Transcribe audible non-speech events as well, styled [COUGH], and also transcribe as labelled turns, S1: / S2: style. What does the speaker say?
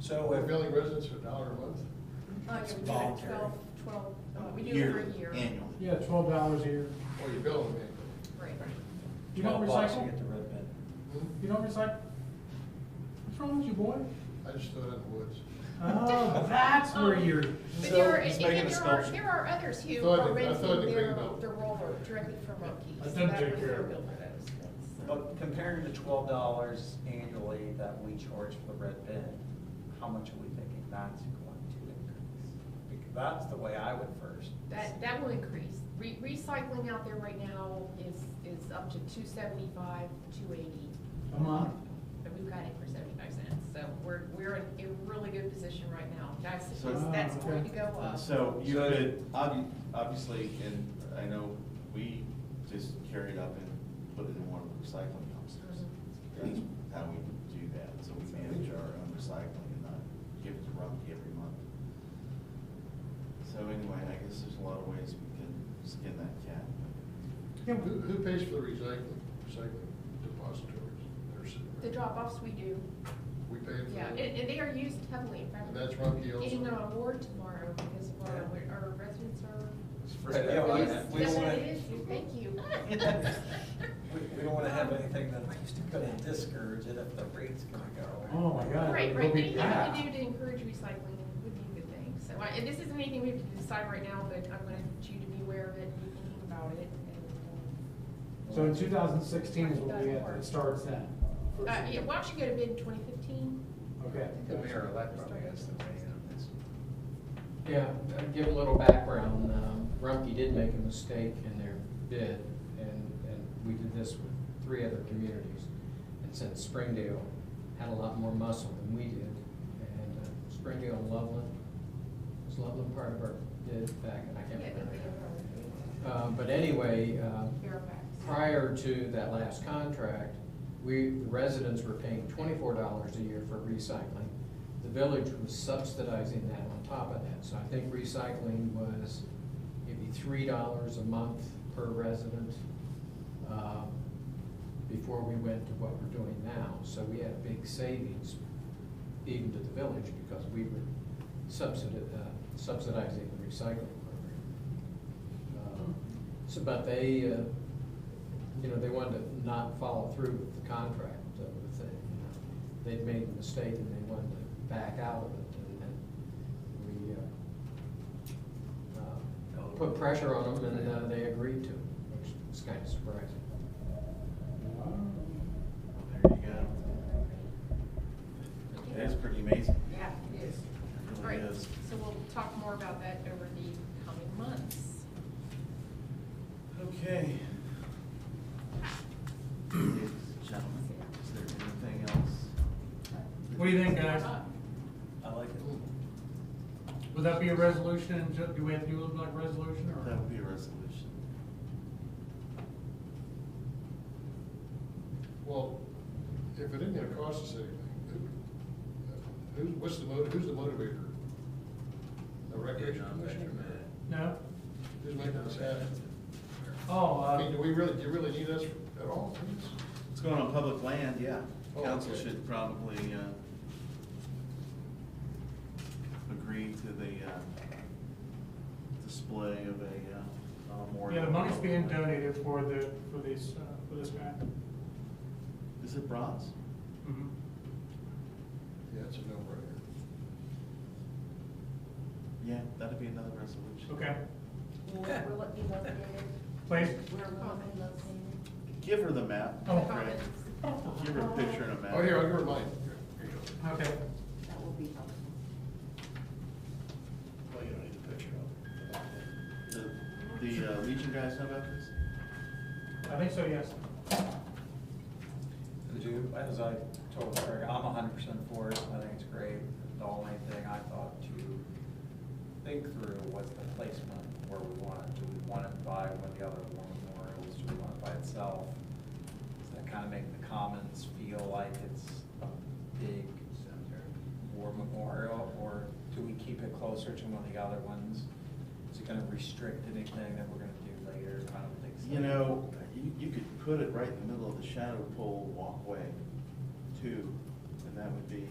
S1: So
S2: We're
S1: if,
S2: billing residents for a dollar a month?
S3: Not
S1: It's
S3: every year,
S1: voluntary.
S3: Twelve, twelve, uh, we do it for a year.
S4: Annually.
S5: Yeah, twelve dollars a year.
S2: Or you bill them annually?
S3: Right.
S5: You don't
S1: Twelve bucks to
S5: recycle?
S1: Get the red bin.
S2: Hmm?
S5: You don't recycle? What's wrong with you,
S3: [LAUGHS]
S5: boy?
S2: I just throw it in the woods.
S5: Oh, that's where
S3: Um,
S5: you're,
S3: But
S1: So,
S3: there are, and
S1: let's make it
S3: and
S1: a
S3: there are,
S1: sculpture.
S3: there are others
S2: I
S3: who
S2: thought
S3: are
S2: they- I
S3: renting
S2: thought they
S3: their,
S2: cleaned up.
S3: their roller directly from Rockies.
S5: Let them
S3: That
S5: take
S3: was
S5: care
S3: their
S5: of it.
S3: bill for those. That's-
S1: But comparing the twelve dollars annually that we charge for the red bin, how much are we thinking that's going to increase? Because that's the way I would first.
S3: That, that will increase. Re- Recycling out there right now is, is up to two seventy-five, two eighty.
S5: a month.
S3: But we've got it for seventy-five cents, so we're, we're in a really good position right now. That's,
S4: So-
S3: that's
S5: Ah,
S3: going
S5: okay.
S3: to go up.
S4: Uh, So you
S1: So-
S4: could, obvi- obviously, and I know we just carried up and put it in one of the recycling dumpsters. That's how we do that, so we manage our own recycling and not give it to Rumpke every month. So anyway, I guess there's a lot of ways we can skin that cat.
S5: Yeah,
S2: Who,
S5: but-
S2: who pays for the recycling, recycling depositories? They're sitting
S3: The
S2: there.
S3: drop-offs we do,
S2: We pay for
S3: yeah, and,
S2: them?
S3: and they are used heavily, in fact.
S2: And that's Rumpke also?
S3: Getting an award tomorrow because of our,
S1: Yeah.
S3: our residents are.
S1: Spread that
S3: Yes,
S1: wide.
S3: yes,
S1: We don't wanna-
S3: it is. Thank you.
S1: [LAUGHS] We, we don't wanna have anything that's gonna discourage it if the rate's gonna go.
S5: Oh, my God.
S3: Right,
S5: it'll
S3: right,
S5: be
S3: anything we can
S5: packed.
S3: do to encourage recycling would be a good thing, so, I- and this isn't anything we have to decide right now, but I'm gonna need you to be aware of it, be thinking about it, and,
S5: So in two thousand sixteen is what we had, it starts then.
S3: um, uh, yeah, why don't you go to bid twenty fifteen?
S5: Okay.
S6: The mayor-elect probably has to weigh in on this.
S7: Yeah, uh, give a little background. Um, Rumpke did make a mistake in their bid, and, and we did this with three other communities. And since Springdale had a lot more muscle than we did, and uh, Springdale and Loveland, was Loveland part of our bid back, and I can't remember. Uh, But anyway, uh,
S3: Fairfax.
S7: prior to that last contract, we, the residents were paying twenty-four dollars a year for recycling. The village was subsidizing that on top of that, so I think recycling was maybe three dollars a month per resident, um, before we went to what we're doing now, so we had big savings even to the village, because we were subsidi- uh, subsidizing the recycling program. Um, So, but they, uh, you know, they wanted to not follow through with the contract, uh, with the, you know, they'd made a mistake and they wanted to back out of it, and then we, uh, uh, put pressure on them, and, uh, they agreed to it, which is kind of surprising.
S4: There you go. It is pretty amazing.
S3: Yeah, it is.
S4: It
S3: All
S4: really
S3: right,
S4: is.
S3: so we'll talk more about that over the coming months.
S4: Okay. Ladies and Gentlemen, is there anything else?
S5: What do you think, guys?
S1: I like it.
S5: Would that be a resolution? and ju- Do we have to do it like resolution
S4: That
S5: or?
S4: would be a resolution.
S2: Well, if it isn't gonna cost us anything, who, who's, what's the motive, who's the motivator? The recreation commissioner?
S5: No?
S2: Who's making this happen?
S5: Oh,
S2: I mean,
S5: uh,
S2: do we really, do you really need us at all?
S4: It's going on public land, yeah.
S2: Oh,
S4: Council
S2: okay.
S4: should probably, uh, agree to the, uh, display of a, uh, memorial.
S5: yeah, the money's being donated for the, for these, uh, for this guy.
S4: Is it bronze?
S1: Mm-hmm.
S5: Mhm.
S2: Yeah, it's a no-brainer.
S4: Yeah, that'd be another resolution.
S5: Okay,
S8: Where will it be located?
S5: please.
S8: Where will it be located?
S4: Give her the map.
S5: Oh.
S4: Greg. Give her a picture and a map.
S2: Oh, here, I'll give her mine. Here, here you go.
S5: Okay.
S8: That will be helpful.
S2: Well, you don't need the picture
S4: The, the uh, Legion guys know about this?
S5: I think so, yes.
S1: Do, as I told Craig, I'm hundred percent for it, I think it's great. The only thing I thought to think through was the placement where we want it. Do we want it by one of the other war memorials, do we want it by itself? Does that kind of make the commons feel like it's a big war memorial, or do we keep it closer to one of the other ones? Is it gonna restrict anything that we're gonna do later? I don't think so.
S4: You know, you, you could put it right in the middle of the shadow pole walkway too, and that would be